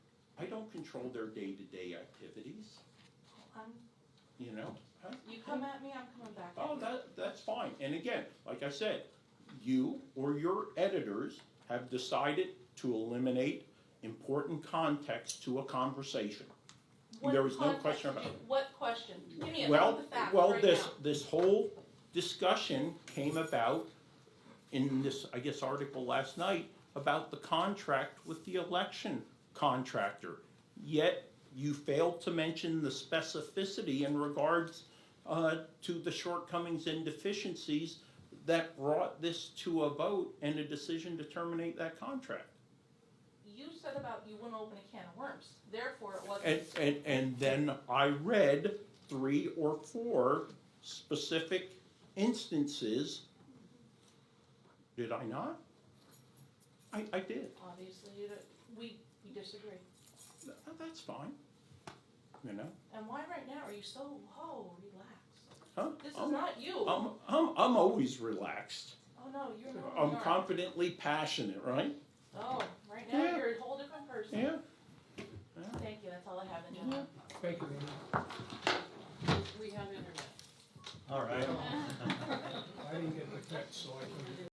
don't control their day-to-day activities, I'm, you know? Huh? you come at me, I'm coming back at Oh, you. that, that's fine. And again, like I said, you or your editors have decided to eliminate important context to a conversation. What there was no context question do- about it. What question? Give me a, Well, the facts well, right this, now. this whole discussion came about in this, I guess, article last night about the contract with the election contractor. Yet you failed to mention the specificity in regards uh, to the shortcomings and deficiencies that brought this to a vote and a decision to terminate that contract. You said about you wouldn't open a can of worms, therefore it wasn't. And, and, and then I read three or four specific instances. Did I not? I, I did. Obviously, you, don't- we, we disagree. Th- That's fine. You know? And why right now are you so, whoa, relax? Huh? This is I'm, not you. I'm, I'm, I'm always relaxed. Oh, no, you're not. I'm you are. confidently passionate, right? Oh, right now, Yeah. you're a whole different person. Yeah? Thank you, that's all I have, agenda. Thank you, Amy. We have internet. All right. I didn't get the text, so I couldn't.